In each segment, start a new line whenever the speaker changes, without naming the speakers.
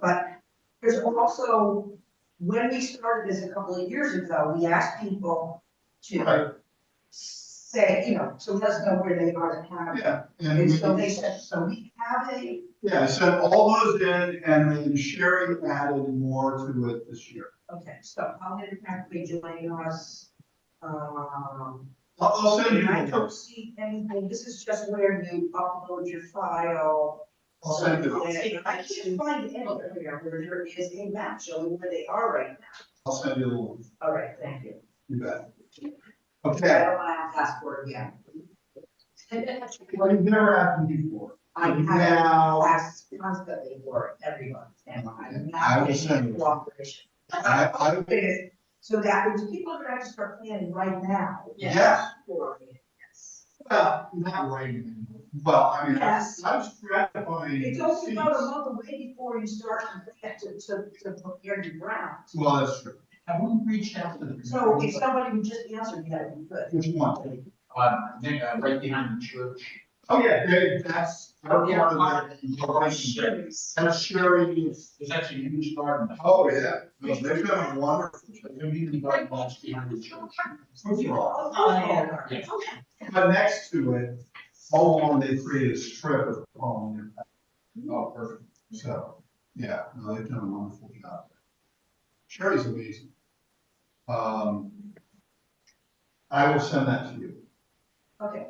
but there's also, when we started this a couple of years ago, we asked people
Right.
to say, you know, to let us know where they are to have.
Yeah, and
And
we,
so they said, so we have a,
yeah, sent all those in and then Sherry added more to it this year.
okay, so how many practically joining us? Um,
I'll, I'll send you
I
the
don't
notes.
see anything, this is just where you upload your file.
I'll send you,
And I can't find anywhere where there is a map showing where they are right now.
I'll send you the link,
All right, thank you.
you bet.
I
Okay,
don't have a passport yet.
well, you've never asked me before.
I have
Now,
classes constantly for everyone, and I'm
I
not
will send
getting
you.
cooperation.
I, I,
So that means people are gonna start planning right now.
yes,
For it, yes.
well, not writing, well, I mean, I
Yes.
I was gratifying.
It's only about a
seats.
month away before you start to, plant, to, to, to prepare your ground.
Well, that's true.
Have we reached out to them?
So if somebody would just answer, yeah, we could.
Which one?
Um, Nick, uh, right behind the church.
Oh, yeah, they- that's.
Oh, yeah,
that's one of the- That's Sherry's.
There's actually a huge garden.
Oh, yeah, No, they've done a wonderful
A community garden that's behind the church.
job.
Oh, oh, oh,
Yeah.
But next to it, all along they created a strip of palm. Oh, perfect. So, yeah, no, they've done a wonderful job. Sherry's amazing. Um, I will send that to you.
Okay,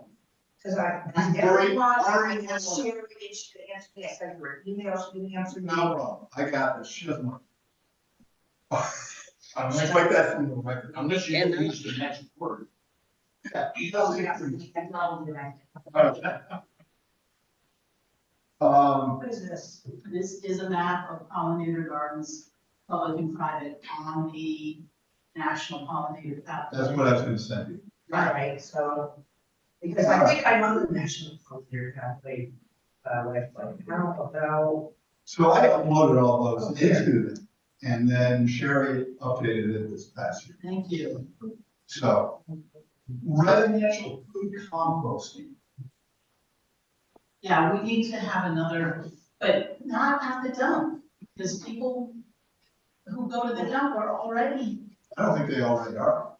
because I.
You've already-
Everyone, I
already
have
answered.
shared it, she answered, yes, I heard emails, she answered.
No problem, I got this, she doesn't want. I'm just like that from the record.
Unless you use the next word.
She
Oh,
doesn't
yeah,
have to-
that's not what I
Um,
What is this?
This is a map of pollinator gardens, public and private, on the National Pollinator Pathway.
that's what I was gonna send you.
All right, so, because I think I know the national frontier pathway, uh, website, now about,
So I uploaded all those into them, and then Sherry updated it this past year.
Thank you.
So residential food composting,
Yeah, we need to have another, but not at the dump, because people who go to the dump are already,
I don't think they already are.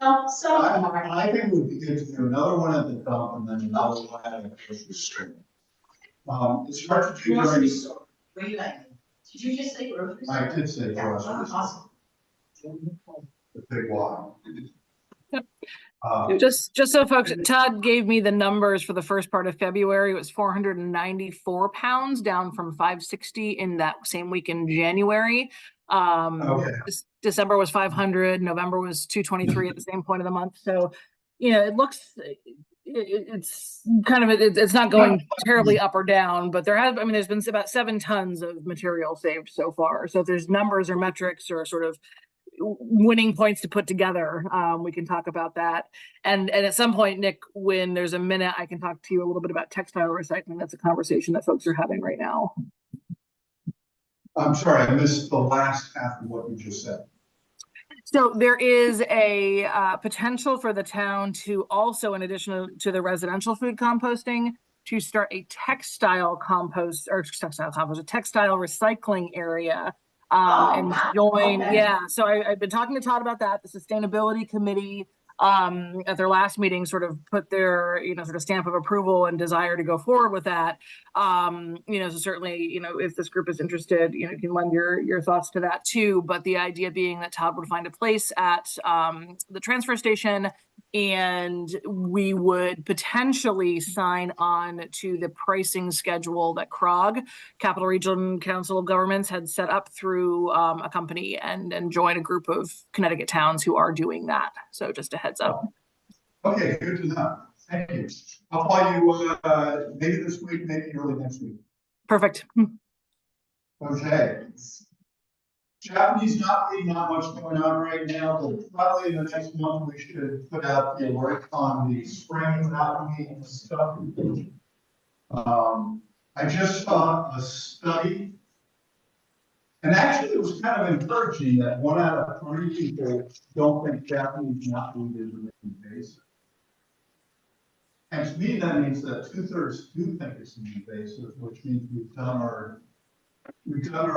well, some are.
I, I think it would be good to do another one at the dump and then another one at a grocery store. Um, it's hard to do
Grocery
during,
store. Were you like, did you just say grocery store?
I did say grocery store,
Awesome.
the big one. Uh,
Just, just so folks, Todd gave me the numbers for the first part of February. It was four hundred and ninety-four pounds, down from five sixty in that same week in January. Um,
okay,
Dec- December was five hundred, November was two twenty-three at the same point of the month. So, you know, it looks, it, it, it's kind of, it, it's not going terribly up or down, but there have, I mean, there's been about seven tons of material saved so far. So if there's numbers or metrics or sort of w- winning points to put together. Um, we can talk about that. And and at some point, Nick, when there's a minute, I can talk to you a little bit about textile recycling. That's a conversation that folks are having right now.
I'm sorry, I missed the last half of what you just said.
So there is a uh, potential for the town to also, in addition to the residential food composting, to start a textile compost or textile compost, a textile recycling area. Um, and
Oh,
join,
okay.
yeah, so I, I've been talking to Todd about that, the sustainability committee. Um, at their last meeting, sort of put their, you know, sort of stamp of approval and desire to go forward with that. Um, you know, so certainly, you know, if this group is interested, you know, you can lend your, your thoughts to that too. But the idea being that Todd would find a place at, um, the transfer station and we would potentially sign on to the pricing schedule that CROG, Capital Region Council of Governments had set up through, um, a company and, and join a group of Connecticut towns who are doing that. So just a heads up.
Okay, good to know. Thank you. I'll call you, uh, maybe this week, maybe early next week.
Perfect.
Okay. Japanese not really not much going on right now, but probably in the next month, we should put out the alert on the spring algae and stuff. Um, I just saw a study. And actually, it was kind of encouraging that one out of three people don't think Japanese knotweed is an invasive. And to me, that means that two thirds do think it's an invasive, which means we've done our We've done our